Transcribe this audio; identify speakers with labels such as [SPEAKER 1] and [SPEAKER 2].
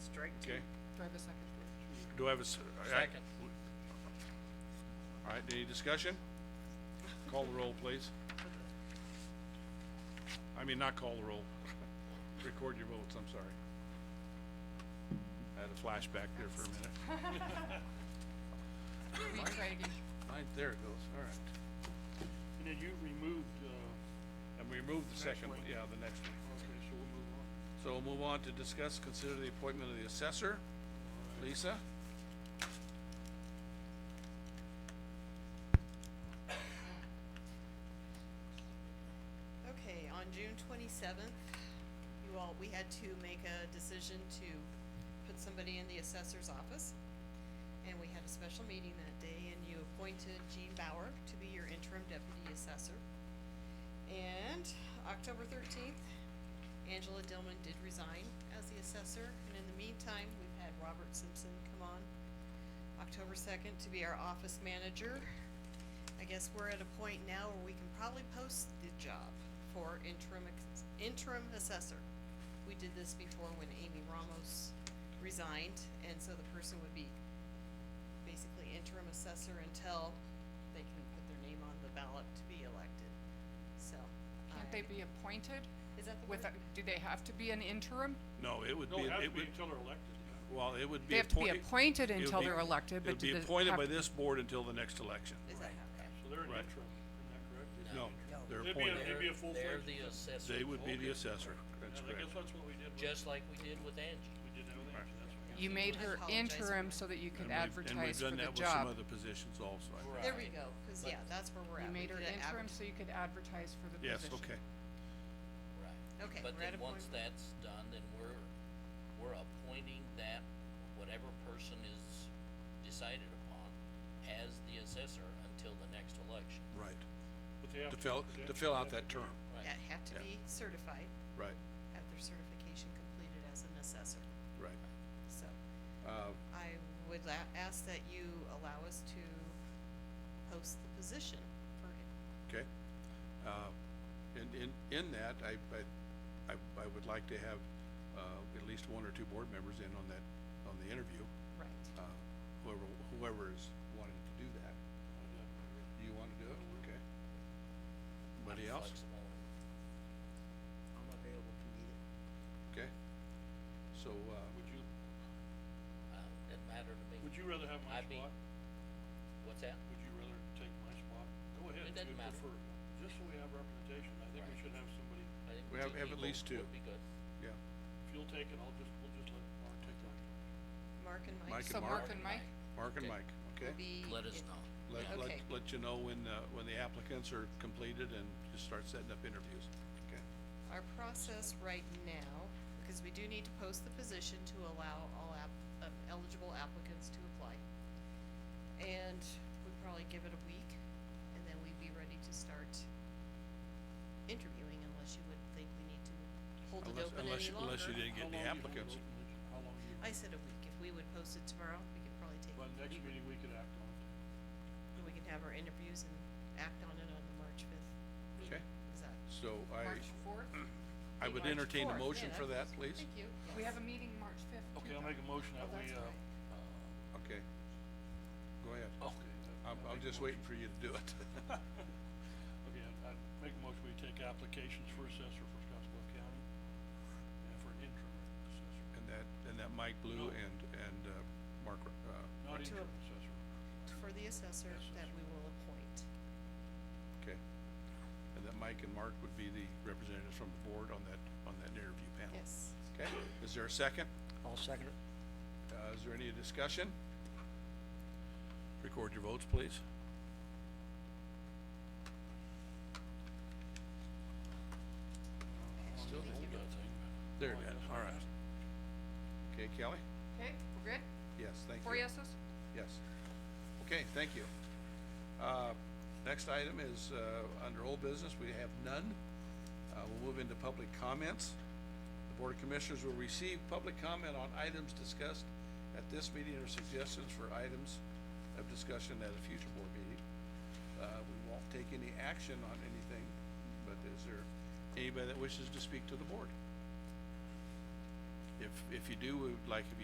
[SPEAKER 1] strike two.
[SPEAKER 2] okay?
[SPEAKER 1] Do I have a second?
[SPEAKER 2] Do I have a? s- I- I-
[SPEAKER 3] Second.
[SPEAKER 2] All right, any discussion? Call the roll, please. I mean, not call the roll. Record your votes, I'm sorry. I had a flashback there for a minute.
[SPEAKER 1] Will you try again?
[SPEAKER 2] Mine, there it goes, all right.
[SPEAKER 4] And then you removed, uh,
[SPEAKER 2] And we removed the second one,
[SPEAKER 4] one.
[SPEAKER 2] yeah, the next one.
[SPEAKER 4] okay, so we'll move on.
[SPEAKER 2] So we'll move on to discuss, consider the appointment of the assessor. Lisa?
[SPEAKER 5] Okay, on June twenty-seventh, you all, we had to make a decision to put somebody in the assessor's office. And we had a special meeting that day and you appointed Jean Bauer to be your interim deputy assessor. And October thirteenth, Angela Dillman did resign as the assessor, and in the meantime, we've had Robert Simpson come on October second to be our office manager. I guess we're at a point now where we can probably post the job for interim, ex- interim assessor. We did this before when Amy Ramos resigned, and so the person would be basically interim assessor until they can put their name on the ballot to be elected, so.
[SPEAKER 1] Can't
[SPEAKER 5] I-
[SPEAKER 1] they be appointed
[SPEAKER 5] Is that the
[SPEAKER 1] with,
[SPEAKER 5] word?
[SPEAKER 1] a- do they have to be an interim?
[SPEAKER 2] No, it would
[SPEAKER 4] No,
[SPEAKER 2] be,
[SPEAKER 4] it has to
[SPEAKER 2] it
[SPEAKER 4] be
[SPEAKER 2] would,
[SPEAKER 4] until they're elected.
[SPEAKER 2] well, it would be.
[SPEAKER 1] They have to be
[SPEAKER 2] appointed- it
[SPEAKER 1] appointed
[SPEAKER 2] would
[SPEAKER 1] until
[SPEAKER 2] be-
[SPEAKER 1] they're elected, but do
[SPEAKER 2] It would
[SPEAKER 1] the.
[SPEAKER 2] be appointed
[SPEAKER 1] have
[SPEAKER 2] by
[SPEAKER 1] to-
[SPEAKER 2] this board until the next election.
[SPEAKER 5] Is that, okay.
[SPEAKER 4] So they're an
[SPEAKER 2] Right.
[SPEAKER 4] interim, isn't that correct?
[SPEAKER 2] No, they're
[SPEAKER 4] They'd be a-
[SPEAKER 2] appointed.
[SPEAKER 4] they'd be a full-fledged.
[SPEAKER 3] They're the assessor.
[SPEAKER 2] They would be the
[SPEAKER 3] Okay.
[SPEAKER 2] assessor, that's
[SPEAKER 4] And I
[SPEAKER 2] correct.
[SPEAKER 4] guess that's what we did with,
[SPEAKER 3] Just like we did with Angie.
[SPEAKER 4] we did that with Angie, that's what.
[SPEAKER 1] You made her
[SPEAKER 5] apologize for
[SPEAKER 1] interim
[SPEAKER 5] that.
[SPEAKER 1] so that you
[SPEAKER 2] And
[SPEAKER 1] could
[SPEAKER 2] we've-
[SPEAKER 1] advertise for
[SPEAKER 2] And we've
[SPEAKER 1] the
[SPEAKER 2] done that with some
[SPEAKER 1] job.
[SPEAKER 2] other positions also, I think.
[SPEAKER 5] There we go, cause yeah, that's where we're at.
[SPEAKER 1] You
[SPEAKER 5] We
[SPEAKER 1] made her
[SPEAKER 5] did it
[SPEAKER 1] interim
[SPEAKER 5] advert-
[SPEAKER 1] so you could advertise for the
[SPEAKER 2] Yes,
[SPEAKER 1] position.
[SPEAKER 2] okay.
[SPEAKER 3] Right.
[SPEAKER 5] Okay,
[SPEAKER 3] But
[SPEAKER 5] we're at
[SPEAKER 3] then
[SPEAKER 5] a
[SPEAKER 3] once
[SPEAKER 5] point-
[SPEAKER 3] that's done, then we're, we're appointing that, whatever person is decided upon as the assessor until the next election.
[SPEAKER 2] Right.
[SPEAKER 4] But they have
[SPEAKER 2] To fill,
[SPEAKER 4] they
[SPEAKER 2] to
[SPEAKER 4] have-
[SPEAKER 2] fill
[SPEAKER 4] they
[SPEAKER 2] out
[SPEAKER 4] have
[SPEAKER 2] that
[SPEAKER 4] to do
[SPEAKER 2] term,
[SPEAKER 5] That have to
[SPEAKER 2] Yeah.
[SPEAKER 5] be certified,
[SPEAKER 2] right,
[SPEAKER 5] have their certification completed as an assessor,
[SPEAKER 2] right.
[SPEAKER 5] so.
[SPEAKER 2] Uh,
[SPEAKER 5] I would la- ask that you allow us to post the position for
[SPEAKER 2] Okay. Uh, And in, in that, I, I, I, I would like to have, uh, at least one or two board members in on that, on the interview,
[SPEAKER 1] Right.
[SPEAKER 2] uh, whoever, whoever is wanting to do that. You wanna do it? Okay. Anybody else?
[SPEAKER 3] Flexible.
[SPEAKER 6] I'm available to meet it.
[SPEAKER 2] Okay. So, uh,
[SPEAKER 4] Would you,
[SPEAKER 3] Uh, doesn't matter to me.
[SPEAKER 4] would you rather have my
[SPEAKER 3] I'd be-
[SPEAKER 4] spot?
[SPEAKER 3] What's that?
[SPEAKER 4] Would you rather take my spot? Go ahead,
[SPEAKER 3] It
[SPEAKER 4] if
[SPEAKER 3] doesn't
[SPEAKER 4] you
[SPEAKER 3] matter.
[SPEAKER 4] prefer, just so we have representation, I think we
[SPEAKER 3] Right.
[SPEAKER 4] should have somebody,
[SPEAKER 3] I think
[SPEAKER 2] We have-
[SPEAKER 3] two
[SPEAKER 2] have at
[SPEAKER 3] people
[SPEAKER 2] least two.
[SPEAKER 3] Would be good.
[SPEAKER 2] yeah,
[SPEAKER 4] if you'll take it, I'll just, we'll just let Mark take that.
[SPEAKER 5] Mark and
[SPEAKER 2] Mike
[SPEAKER 5] Mike.
[SPEAKER 2] and
[SPEAKER 1] So Mark
[SPEAKER 2] Mark.
[SPEAKER 1] and Mike
[SPEAKER 2] Mark and
[SPEAKER 3] Okay.
[SPEAKER 2] Mike, okay?
[SPEAKER 5] will be
[SPEAKER 3] Let us
[SPEAKER 5] in-
[SPEAKER 3] know.
[SPEAKER 2] Let,
[SPEAKER 3] Yeah.
[SPEAKER 2] let,
[SPEAKER 5] Okay.
[SPEAKER 2] let you know when, uh, when the applicants are completed and just start setting up interviews, okay?
[SPEAKER 5] Our process right now, because we do need to post the position to allow all app, um, eligible applicants to apply. And we'd probably give it a week, and then we'd be ready to start interviewing unless you would think we need to hold it
[SPEAKER 2] Unless-
[SPEAKER 5] open
[SPEAKER 2] unless
[SPEAKER 5] any
[SPEAKER 2] you-
[SPEAKER 5] longer.
[SPEAKER 2] unless you didn't
[SPEAKER 4] How
[SPEAKER 2] get any
[SPEAKER 4] long you hold
[SPEAKER 2] applicants.
[SPEAKER 4] open the- How long you,
[SPEAKER 5] I said a week. If we would post it tomorrow, we could probably take
[SPEAKER 4] by the next meeting, we could act on it.
[SPEAKER 5] And we can have our interviews and act on it on the March fifth.
[SPEAKER 2] Okay,
[SPEAKER 5] Is that?
[SPEAKER 2] so
[SPEAKER 1] March
[SPEAKER 2] I,
[SPEAKER 1] fourth?
[SPEAKER 2] I would entertain a
[SPEAKER 1] fourth,
[SPEAKER 2] motion
[SPEAKER 5] yeah,
[SPEAKER 2] for that,
[SPEAKER 5] that's-
[SPEAKER 2] please.
[SPEAKER 5] Thank you.
[SPEAKER 1] We have a meeting March fifth.
[SPEAKER 4] Okay, I'll make a motion that
[SPEAKER 1] Oh,
[SPEAKER 4] we,
[SPEAKER 1] that's
[SPEAKER 4] uh,
[SPEAKER 1] right.
[SPEAKER 2] Okay. Go ahead.
[SPEAKER 4] okay, that-
[SPEAKER 2] I'm,
[SPEAKER 4] I
[SPEAKER 2] I'm
[SPEAKER 4] make a
[SPEAKER 2] just
[SPEAKER 4] motion-
[SPEAKER 2] waiting for you to do it.
[SPEAKER 4] Okay, I, I make a motion, we take applications for assessor for Scottsbluff County, and for an interim assessor,
[SPEAKER 2] And that, and that Mike Blue
[SPEAKER 4] No.
[SPEAKER 2] and, and, uh, Mark, uh,
[SPEAKER 5] Or
[SPEAKER 4] not
[SPEAKER 5] to
[SPEAKER 4] interim
[SPEAKER 5] a-
[SPEAKER 4] assessor.
[SPEAKER 5] For the assessor that we will appoint.
[SPEAKER 2] okay. And that Mike and Mark would be the representatives from the board on that, on that interview panel.
[SPEAKER 5] Yes.
[SPEAKER 2] Okay, is there a second?
[SPEAKER 6] I'll second it.
[SPEAKER 2] Uh, is there any discussion? Record your votes, please.
[SPEAKER 3] Still hold it.
[SPEAKER 2] There, it is. all right. Okay, Kelly?
[SPEAKER 1] Okay, we're good?
[SPEAKER 2] Yes, thank you.
[SPEAKER 1] Four yeses?
[SPEAKER 2] Yes. Okay, thank you. Uh, next item is, uh, under old business, we have none. Uh, we'll move into public comments. The Board of Commissioners will receive public comment on items discussed at this meeting or suggestions for items of discussion at a future board meeting. Uh, we won't take any action on anything, but is there anybody that wishes to speak to the board? If, if you do, we would like if you